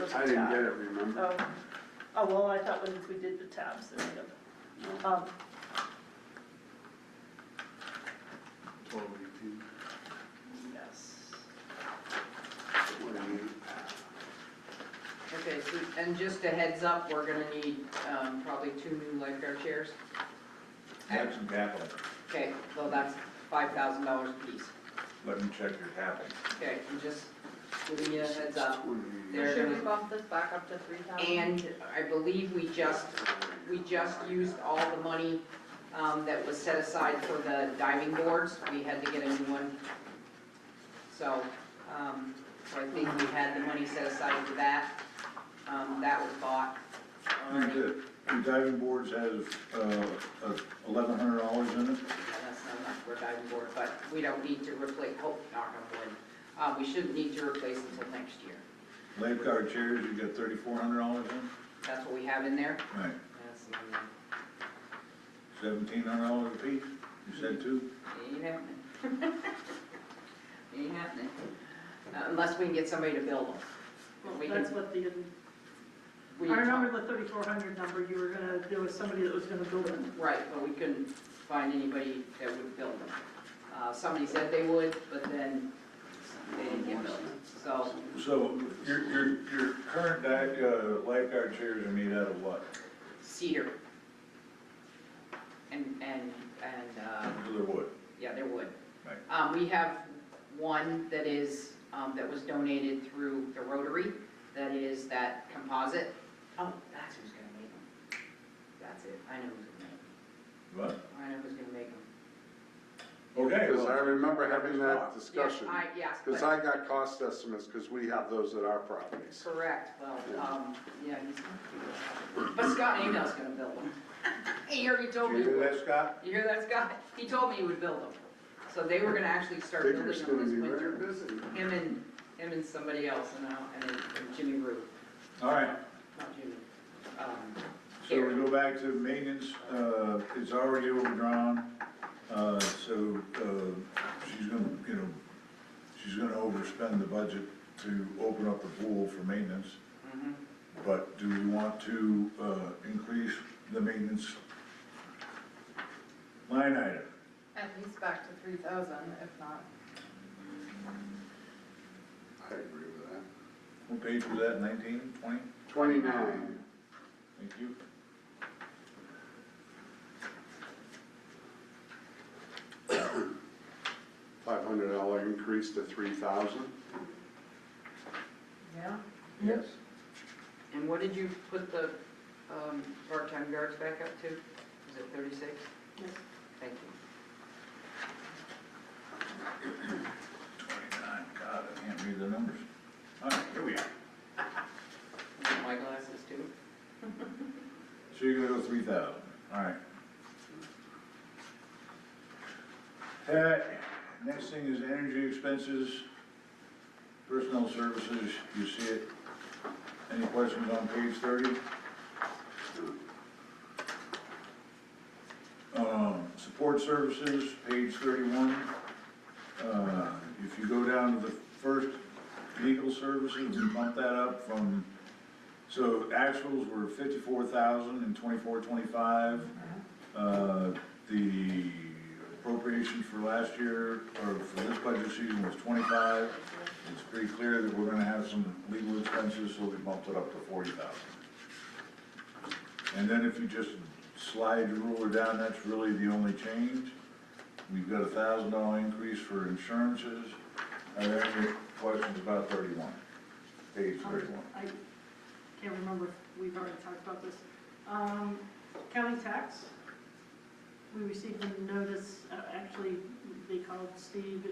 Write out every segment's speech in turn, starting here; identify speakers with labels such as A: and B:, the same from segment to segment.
A: was a
B: I
A: tab.
B: didn't get it, remember?
A: Oh, oh, well, I thought when we did the tabs, there would have, um,
B: Twelve eighteen.
A: yes.
B: What do you mean?
C: Okay, so, and just a heads up, we're gonna need, um, probably two new lifeguard chairs.
D: Have some capital,
C: Okay, so that's five thousand dollars a piece.
D: let me check your capital.
C: Okay, I'm just giving you a heads up.
B: Twenty.
C: There it
E: Should we
C: is.
E: bump this back up to three thousand?
C: And I believe we just, we just used all the money, um, that was set aside for the diving boards. We had to get a new one. So, um, so I think we had the money set aside for that. Um, that was bought already. Yeah,
D: The diving boards has, uh, eleven hundred dollars in it.
C: That's not enough for a diving board, but we don't need to replace, hope, knock on wood. Uh, we shouldn't need to replace until next year.
D: Lifeguard chairs, you got thirty-four hundred dollars in?
C: That's what we have in there?
D: Right.
C: That's, um,
D: Seventeen hundred dollars a piece, you said two?
C: ain't happening. Ain't happening. Uh, Unless we can get somebody to build them. Well, we
A: That's
C: can-
A: what the,
C: We-
A: I remember the thirty-four hundred number, you were gonna, there was somebody that was gonna build it.
C: Right, but we couldn't find anybody that would build them. Uh, somebody said they would, but then they didn't get built. So,
D: So your, your, your current di- uh, lifeguard chairs are made out of what?
C: cedar. And, and, and, uh,
D: Regular wood.
C: Yeah, there would.
D: Right.
C: Um, we have one that is, um, that was donated through the Rotary, that is that composite. Oh, that's who's gonna make them. That's it, I know who's gonna make them,
D: What?
C: I know who's gonna make them.
D: Okay,
B: Because I
D: well,
B: remember having that discussion,
C: Yeah, I, yes,
B: because
C: but,
B: Uh, I got cost estimates, because we have those at our properties.
C: correct, well, um, yeah, he's gonna do it. But Scott Amell's gonna build them. He already told
D: you
C: me,
D: hear that, Scott?
C: you hear that, Scott? He told me he would build them. So they were gonna actually start building them
B: Digger's
C: this
B: gonna be
C: winter.
B: very busy.
C: Him and, him and somebody else, and, uh, and and Jimmy Rue.
D: All right,
C: Not Jimmy, um,
D: so we
C: Gary.
D: go back to maintenance, uh, it's already overdrawn, uh, so, uh, she's gonna, you know, she's gonna overspend the budget to open up the pool for maintenance,
C: Mhm.
D: but do we want to, uh, increase the maintenance line item?
E: At least back to three thousand, if not.
B: I agree with that.
D: What page was that, nineteen, twenty?
B: Twenty-nine.
D: Thank you.
B: Five hundred dollar increase to three thousand.
E: Yeah.
D: Yes.
C: And what did you put the um, part-time guards back up to? Was it 36?
A: Yes.
C: Thank you.
D: Twenty-nine, God, I can't read the numbers. All right, here we are.
C: My glasses too.
D: So you're gonna go three thousand, alright. Uh, next thing is energy expenses, personnel services, you see it. Any questions on page thirty? Um, support services, page thirty-one. Uh, if you go down to the first, legal services, we bump that up from so actuals were fifty-four thousand and twenty-four, twenty-five. Uh, The appropriation for last year, or for this budget season was twenty-five. It's pretty clear that we're gonna have some legal expenses, so we bumped it up to forty thousand. And then if you just slide your ruler down, that's really the only change. We've got a thousand dollar increase for insurances. Are there any questions about thirty-one? Page thirty-one.
A: Um, I can't remember if we've already talked about this. Um, county tax, we received a notice, uh, actually, they called Steve,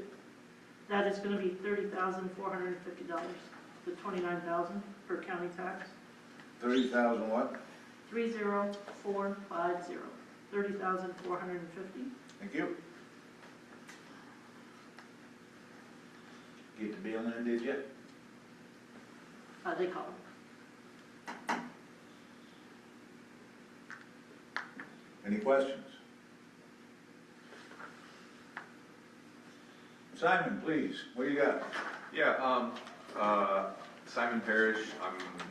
A: that is gonna be thirty thousand four hundred and fifty dollars, the twenty-nine thousand for county tax,
D: Thirty thousand what?
A: three zero four five zero, thirty thousand four hundred and fifty.
D: Thank you. Get to be on there, did you?
A: Uh, they call
D: Any questions? Simon, please, what do you got?
F: Yeah, um, uh, Simon Parrish, I'm